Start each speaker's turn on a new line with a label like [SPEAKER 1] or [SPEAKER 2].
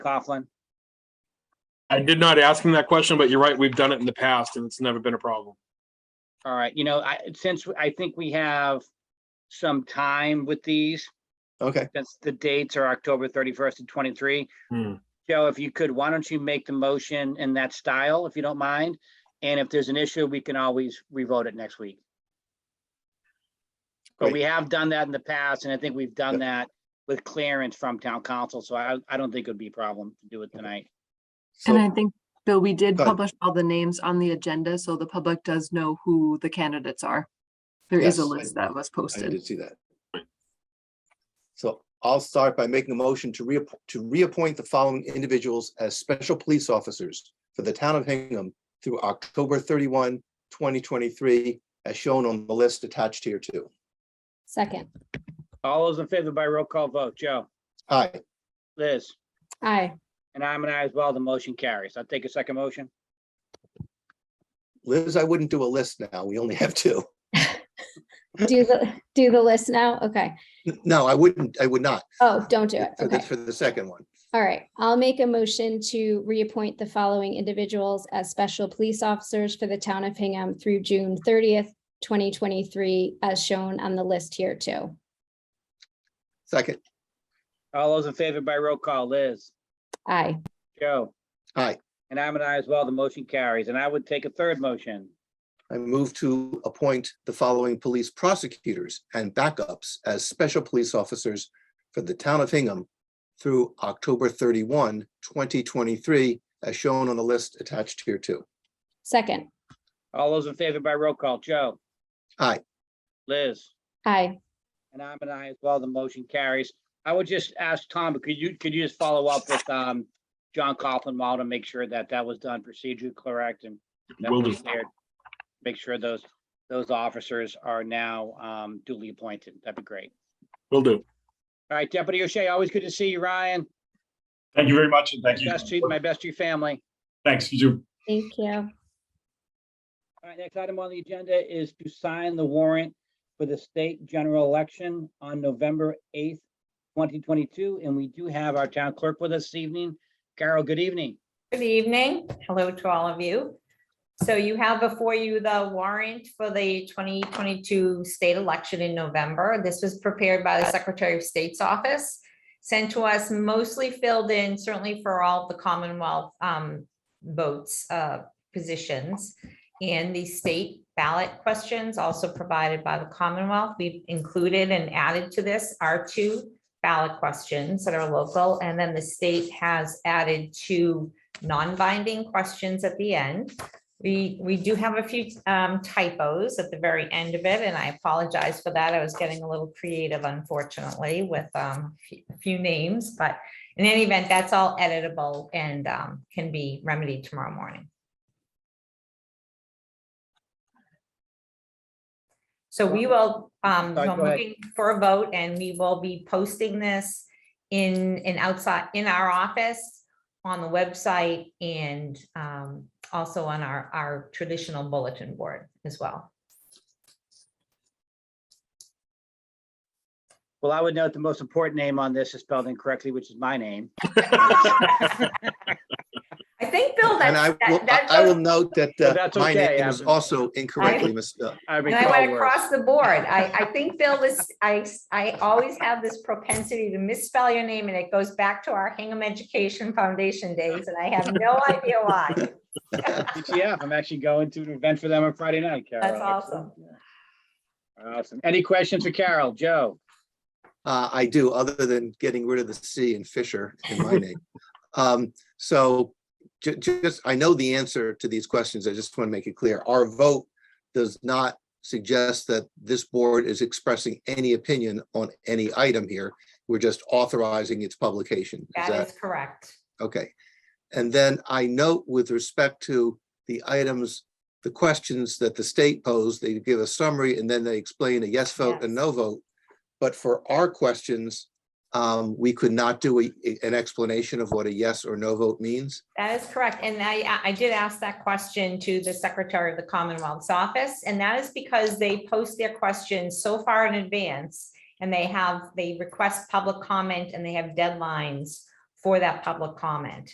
[SPEAKER 1] Coughlin?
[SPEAKER 2] I did not ask him that question, but you're right, we've done it in the past and it's never been a problem.
[SPEAKER 1] All right, you know, I, since I think we have some time with these,
[SPEAKER 3] Okay,
[SPEAKER 1] since the dates are October thirty-first and twenty-three.
[SPEAKER 2] Hmm.
[SPEAKER 1] Joe, if you could, why don't you make the motion in that style, if you don't mind? And if there's an issue, we can always revote it next week. But
[SPEAKER 3] Great.
[SPEAKER 1] we have done that in the past, and I think we've done that with clearance from town council, so I, I don't think it'd be a problem to do it tonight.
[SPEAKER 3] so,
[SPEAKER 4] And I think, Bill, we did
[SPEAKER 3] Go ahead.
[SPEAKER 4] publish all the names on the agenda, so the public does know who the candidates are. There is a
[SPEAKER 3] Yes, I-
[SPEAKER 4] list that was
[SPEAKER 3] I
[SPEAKER 4] posted.
[SPEAKER 3] did see that. So I'll start by making a motion to reap, to reappoint the following individuals as special police officers for the town of Hingham through October 31, 2023, as shown on the list attached here too.
[SPEAKER 5] Second,
[SPEAKER 1] All those in favor by roll call vote, Joe,
[SPEAKER 3] Hi,
[SPEAKER 1] Liz,
[SPEAKER 5] aye,
[SPEAKER 1] and I'm an I as well, the motion carries. I'll take a second motion.
[SPEAKER 3] Liz, I wouldn't do a list now. We only have two.
[SPEAKER 5] do the, do the list now, okay,
[SPEAKER 3] No, I wouldn't, I would not.
[SPEAKER 5] oh, don't do it,
[SPEAKER 3] For the,
[SPEAKER 5] okay,
[SPEAKER 3] for the second one.
[SPEAKER 5] all right, I'll make a motion to reappoint the following individuals as special police officers for the town of Hingham through June thirtieth, twenty twenty-three, as shown on the list here too.
[SPEAKER 3] Second,
[SPEAKER 1] All those in favor by roll call, Liz,
[SPEAKER 5] Aye,
[SPEAKER 1] Joe.
[SPEAKER 3] Aye.
[SPEAKER 1] And I'm an I as well, the motion carries, and I would take a third motion.
[SPEAKER 3] I move to appoint the following police prosecutors and backups as special police officers for the town of Hingham through October 31, 2023, as shown on the list attached here too.
[SPEAKER 5] second,
[SPEAKER 1] All those in favor by roll call, Joe.
[SPEAKER 3] Aye.
[SPEAKER 1] Liz,
[SPEAKER 5] aye,
[SPEAKER 1] and I'm an I as well, the motion carries. I would just ask Tom, could you, could you just follow up with, um, John Coughlin while to make sure that that was done procedurally correct and that
[SPEAKER 2] Will
[SPEAKER 1] was
[SPEAKER 2] do.
[SPEAKER 1] fair? Make sure those, those officers are now, um, duly appointed. That'd be great.
[SPEAKER 2] Will do.
[SPEAKER 1] All right, Deputy O'Shea, always good to see you, Ryan.
[SPEAKER 6] Thank you very much, and thank you.
[SPEAKER 1] Best to you, my best to your family.
[SPEAKER 6] Thanks, you too.
[SPEAKER 5] thank you,
[SPEAKER 1] All right, next item on the agenda is to sign the warrant for the state general election on November eighth, twenty twenty-two, and we do have our town clerk with us this evening. Carol, good evening.
[SPEAKER 7] Good evening. Hello to all of you. So you have before you the warrant for the 2022 state election in November. This was prepared by the Secretary of State's office, sent to us mostly filled in, certainly for all the Commonwealth um, votes, uh, positions, and the state ballot questions also provided by the Commonwealth. We've included and added to this our two ballot questions that are local, and then the state has added two non-binding questions at the end. We, we do have a few um, typos at the very end of it, and I apologize for that. I was getting a little creative unfortunately with um, a few names, but in any event, that's all editable and um, can be remedied tomorrow morning. So we will, um,
[SPEAKER 1] Sorry,
[SPEAKER 7] I'm
[SPEAKER 1] go ahead.
[SPEAKER 7] looking for a vote, and we will be posting this in, in outside, in our office, on the website, and um, also on our, our traditional bulletin board as well.
[SPEAKER 1] Well, I would note the most important name on this is spelled incorrectly, which is my name.
[SPEAKER 7] I think, Bill,
[SPEAKER 3] And I
[SPEAKER 7] that's,
[SPEAKER 3] will,
[SPEAKER 7] that-
[SPEAKER 3] I
[SPEAKER 7] that
[SPEAKER 3] I will
[SPEAKER 7] goes-
[SPEAKER 3] note that
[SPEAKER 1] But
[SPEAKER 3] uh,
[SPEAKER 1] that's
[SPEAKER 3] my
[SPEAKER 1] okay,
[SPEAKER 3] name was
[SPEAKER 1] I'm-
[SPEAKER 3] also incorrectly, mis- uh,
[SPEAKER 1] I
[SPEAKER 7] and I went
[SPEAKER 1] recall words.
[SPEAKER 7] across the board. I, I think, Bill, this, I, I always have this propensity to misspell your name, and it goes back to our Hingham Education Foundation days, and I have no idea why.
[SPEAKER 1] DTF, I'm actually going to an event for them on Friday night, Carol.
[SPEAKER 7] That's awesome.
[SPEAKER 1] Awesome. Any questions for Carol? Joe?
[SPEAKER 3] Uh, I do, other than getting rid of the C in Fisher in my name. Um, so ju- just, I know the answer to these questions. I just want to make it clear. Our vote does not suggest that this board is expressing any opinion on any item here. We're just authorizing its publication. Is
[SPEAKER 7] That is correct.
[SPEAKER 3] Okay. And then I note with respect to the items, the questions that the state posed, they give a summary and then they explain a yes vote and
[SPEAKER 7] Yes.
[SPEAKER 3] no vote. But for our questions, um, we could not do a, an explanation of what a yes or no vote means.
[SPEAKER 7] That is correct. And I, I- I did ask that question to the Secretary of the Commonwealth's office, and that is because they post their questions so far in advance. And they have, they request public comment and they have deadlines for that public comment.